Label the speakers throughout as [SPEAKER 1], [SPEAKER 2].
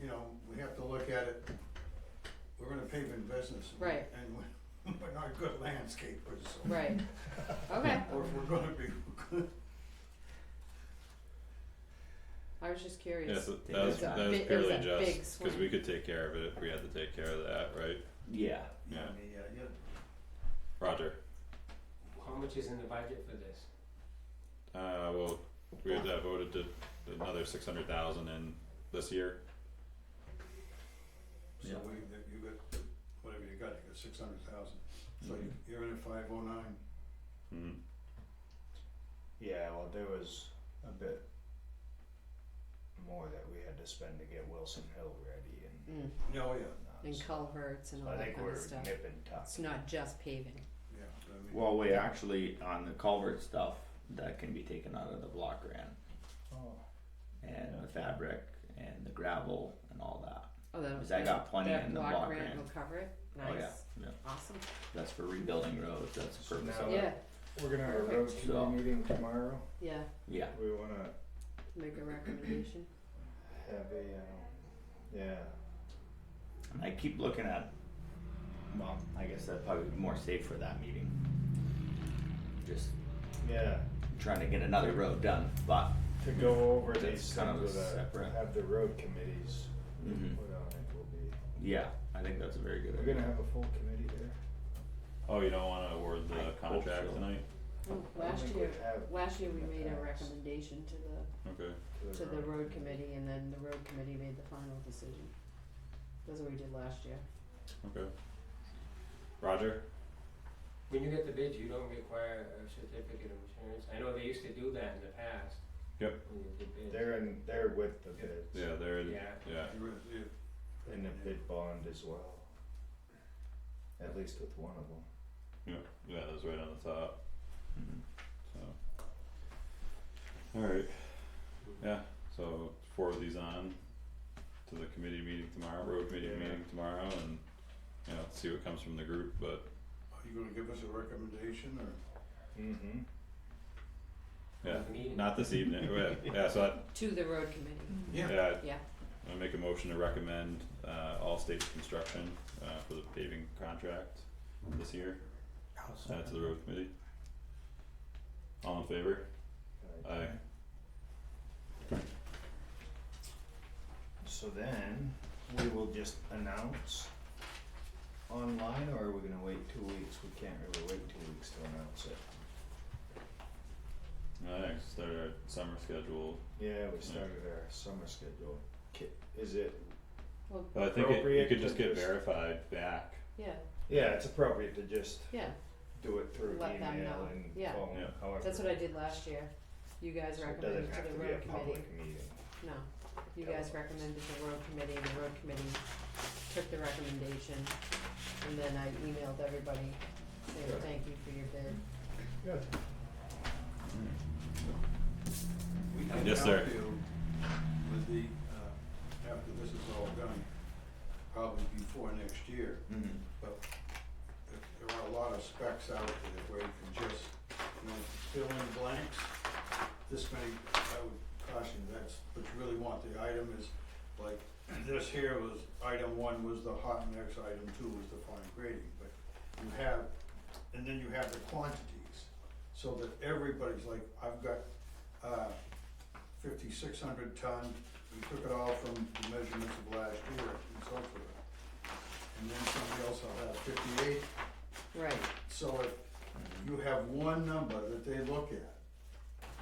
[SPEAKER 1] you know, we have to look at it, we're in a paving business. and-
[SPEAKER 2] Right.
[SPEAKER 1] And we- we're not good landscapers, so.
[SPEAKER 2] Right. Okay.
[SPEAKER 1] Or if we're gonna be good,
[SPEAKER 2] I was just
[SPEAKER 3] Yeah,
[SPEAKER 2] curious.
[SPEAKER 3] so
[SPEAKER 4] It
[SPEAKER 3] that was,
[SPEAKER 4] was a
[SPEAKER 3] that was
[SPEAKER 2] big- it was
[SPEAKER 3] purely
[SPEAKER 2] a big
[SPEAKER 3] just, cause
[SPEAKER 2] swing.
[SPEAKER 3] we could take care of it if we had to take care of that, right?
[SPEAKER 4] Yeah.
[SPEAKER 1] yeah,
[SPEAKER 3] Yeah.
[SPEAKER 1] yeah, yeah,
[SPEAKER 3] Roger,
[SPEAKER 5] How much is in the budget for this?
[SPEAKER 3] uh, well, we had that voted to another six hundred thousand in this year,
[SPEAKER 1] so
[SPEAKER 4] Yeah.
[SPEAKER 1] we, that you got, whatever you got, you got six hundred thousand, so you- you're in at five oh nine,
[SPEAKER 3] mm,
[SPEAKER 6] Yeah, well, there was a bit more that we had to spend to get Wilson Hill ready and
[SPEAKER 2] Mm,
[SPEAKER 1] oh, yeah,
[SPEAKER 6] whatnot,
[SPEAKER 2] and
[SPEAKER 6] so
[SPEAKER 2] culverts and all
[SPEAKER 6] I
[SPEAKER 2] that
[SPEAKER 6] think
[SPEAKER 2] kind
[SPEAKER 6] we're
[SPEAKER 2] of stuff.
[SPEAKER 6] nip and tuck.
[SPEAKER 2] It's not just paving.
[SPEAKER 1] yeah, but I mean.
[SPEAKER 4] Well, we actually on the culvert stuff that can be taken out of the block grant
[SPEAKER 6] Oh,
[SPEAKER 4] and the fabric and the gravel and all that.
[SPEAKER 2] Oh, that,
[SPEAKER 4] Cause I got plenty
[SPEAKER 2] that
[SPEAKER 4] in the
[SPEAKER 2] block,
[SPEAKER 4] block
[SPEAKER 2] grant,
[SPEAKER 4] grant.
[SPEAKER 2] will cover it. Nice.
[SPEAKER 4] Oh yeah, yeah.
[SPEAKER 2] Awesome.
[SPEAKER 4] That's for rebuilding roads. That's the
[SPEAKER 6] So
[SPEAKER 4] purpose
[SPEAKER 6] now-
[SPEAKER 4] of it.
[SPEAKER 2] Yeah.
[SPEAKER 6] we're gonna have a road
[SPEAKER 2] Perfect.
[SPEAKER 4] So-
[SPEAKER 6] committee meeting tomorrow.
[SPEAKER 2] Yeah.
[SPEAKER 4] Yeah.
[SPEAKER 6] We wanna
[SPEAKER 2] Make a recommendation.
[SPEAKER 6] have a, um, yeah,
[SPEAKER 4] And I keep looking at. Well, I guess that'd probably be more safe for that meeting. Just
[SPEAKER 6] yeah,
[SPEAKER 4] trying to get another road done, but.
[SPEAKER 6] to go over
[SPEAKER 4] That's
[SPEAKER 6] these
[SPEAKER 4] kind
[SPEAKER 6] things
[SPEAKER 4] of
[SPEAKER 6] with a,
[SPEAKER 4] separate.
[SPEAKER 6] have the road committees
[SPEAKER 4] hmm
[SPEAKER 6] put on it will be.
[SPEAKER 4] Yeah, I think that's a very good
[SPEAKER 6] We're
[SPEAKER 4] idea.
[SPEAKER 6] gonna have a full committee there.
[SPEAKER 3] oh, you don't wanna award
[SPEAKER 4] I
[SPEAKER 3] the
[SPEAKER 4] hope
[SPEAKER 3] contract
[SPEAKER 4] so.
[SPEAKER 3] tonight,
[SPEAKER 2] Ooh,
[SPEAKER 6] Oh, I don't
[SPEAKER 2] last
[SPEAKER 6] think
[SPEAKER 2] year,
[SPEAKER 6] we've had
[SPEAKER 2] last year we
[SPEAKER 6] in the
[SPEAKER 2] made a
[SPEAKER 6] past.
[SPEAKER 2] recommendation to the
[SPEAKER 3] okay,
[SPEAKER 2] to the road committee, and then the road committee made the final decision. That's what we did last year.
[SPEAKER 3] okay. Roger,
[SPEAKER 5] When you get the bids, you don't require a certificate of insurance. I know they used to do that in the past.
[SPEAKER 3] Yep.
[SPEAKER 5] When you did bids.
[SPEAKER 6] They're in, they're with the bids.
[SPEAKER 3] yeah, there, yeah,
[SPEAKER 5] Yeah.
[SPEAKER 1] You're in- you're-
[SPEAKER 6] And a bid bond as well. At least with one of them.
[SPEAKER 3] yeah, yeah, that's right on the top,
[SPEAKER 4] Mhm.
[SPEAKER 3] so. Alright, yeah, so forward these on to the committee meeting tomorrow, road committee
[SPEAKER 6] Yeah.
[SPEAKER 3] meeting tomorrow and, you know, see what comes from the group, but
[SPEAKER 1] Are you gonna give us a recommendation, or,
[SPEAKER 6] Mm-hmm.
[SPEAKER 3] yeah,
[SPEAKER 5] Meeting.
[SPEAKER 3] Not this evening, yeah, yeah, so I,
[SPEAKER 2] To the road
[SPEAKER 6] Mm-hmm.
[SPEAKER 2] committee.
[SPEAKER 1] yeah,
[SPEAKER 3] yeah,
[SPEAKER 2] Yeah.
[SPEAKER 3] I make a motion to recommend, uh, all state construction, uh, for the paving contract this year, send it to the road committee. All in favor? Aye.
[SPEAKER 6] So then, we will just announce online, or are we gonna wait two weeks? We can't really wait two weeks to announce it.
[SPEAKER 3] Alright, start our summer schedule,
[SPEAKER 6] Yeah, we started our summer schedule. Mm. Ki- Is it,
[SPEAKER 2] Well,
[SPEAKER 3] but I think it, you
[SPEAKER 6] Appropriate
[SPEAKER 3] could just get
[SPEAKER 6] interest.
[SPEAKER 3] verified back,
[SPEAKER 2] yeah,
[SPEAKER 6] yeah, it's appropriate to just
[SPEAKER 2] yeah.
[SPEAKER 6] do it through
[SPEAKER 2] Let them
[SPEAKER 6] email
[SPEAKER 2] know.
[SPEAKER 6] and
[SPEAKER 2] Yeah.
[SPEAKER 6] phone,
[SPEAKER 3] Yeah.
[SPEAKER 6] however.
[SPEAKER 2] That's what I did last year. You guys
[SPEAKER 6] So it
[SPEAKER 2] recommended to the road
[SPEAKER 6] Doesn't have to be a
[SPEAKER 2] committee.
[SPEAKER 6] public meeting.
[SPEAKER 2] No, you
[SPEAKER 6] Yeah.
[SPEAKER 2] guys recommended the road committee, the road committee took the recommendation, and then I emailed everybody saying,
[SPEAKER 6] Good.
[SPEAKER 2] thank you for your bid.
[SPEAKER 6] Good.
[SPEAKER 1] we can
[SPEAKER 3] Yes, sir.
[SPEAKER 1] help you with the, uh, after this is all done, probably before next year,
[SPEAKER 4] Mhm.
[SPEAKER 1] but there- there are a lot of specs out there where you can just, you know, fill in blanks. This many, I would caution, that's what you really want, the item is, like, this here was, item one was the hot mix, item two was the fine grading, but you have, and then you have the quantities, so that everybody's like, I've got, uh, fifty-six hundred ton, we took it all from the measurements of last year and so forth. And then somebody else will have fifty-eight,
[SPEAKER 2] Right,
[SPEAKER 1] so if you have one number that they look at,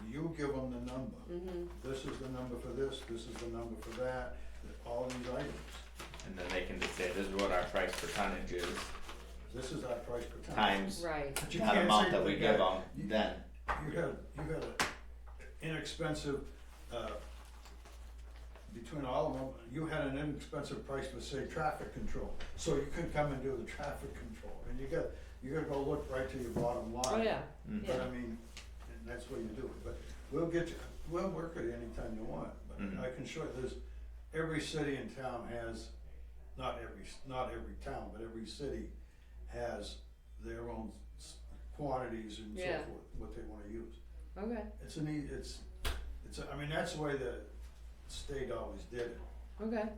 [SPEAKER 1] you give them the number.
[SPEAKER 2] mm-hmm,
[SPEAKER 1] This is the number for this, this is the number for that, all these items.
[SPEAKER 4] And then they can just say, this is what our price per tonnage is,
[SPEAKER 1] This is our price per ton.
[SPEAKER 4] times
[SPEAKER 2] right,
[SPEAKER 1] But you
[SPEAKER 4] that
[SPEAKER 1] can't
[SPEAKER 4] amount
[SPEAKER 1] say
[SPEAKER 4] that we
[SPEAKER 1] you
[SPEAKER 4] give them,
[SPEAKER 1] got- you-
[SPEAKER 4] then.
[SPEAKER 1] You got, you got a inexpensive, uh, between all of them, you had an inexpensive price for, say, traffic control. So you could come and do the traffic control, and you got, you gotta go look right to your bottom line.
[SPEAKER 2] oh yeah,
[SPEAKER 4] Mhm.
[SPEAKER 1] But I mean, and that's what you do, but we'll get you, we'll work it anytime you want,
[SPEAKER 4] Mhm.
[SPEAKER 1] but I can show you this, every city in town has, not every, not every town, but every city has their own s- quantities and so
[SPEAKER 2] Yeah.
[SPEAKER 1] forth, what they wanna use. e,
[SPEAKER 2] okay,
[SPEAKER 1] It's an ea- it's, it's, I mean, that's the way the state always did it.
[SPEAKER 2] okay.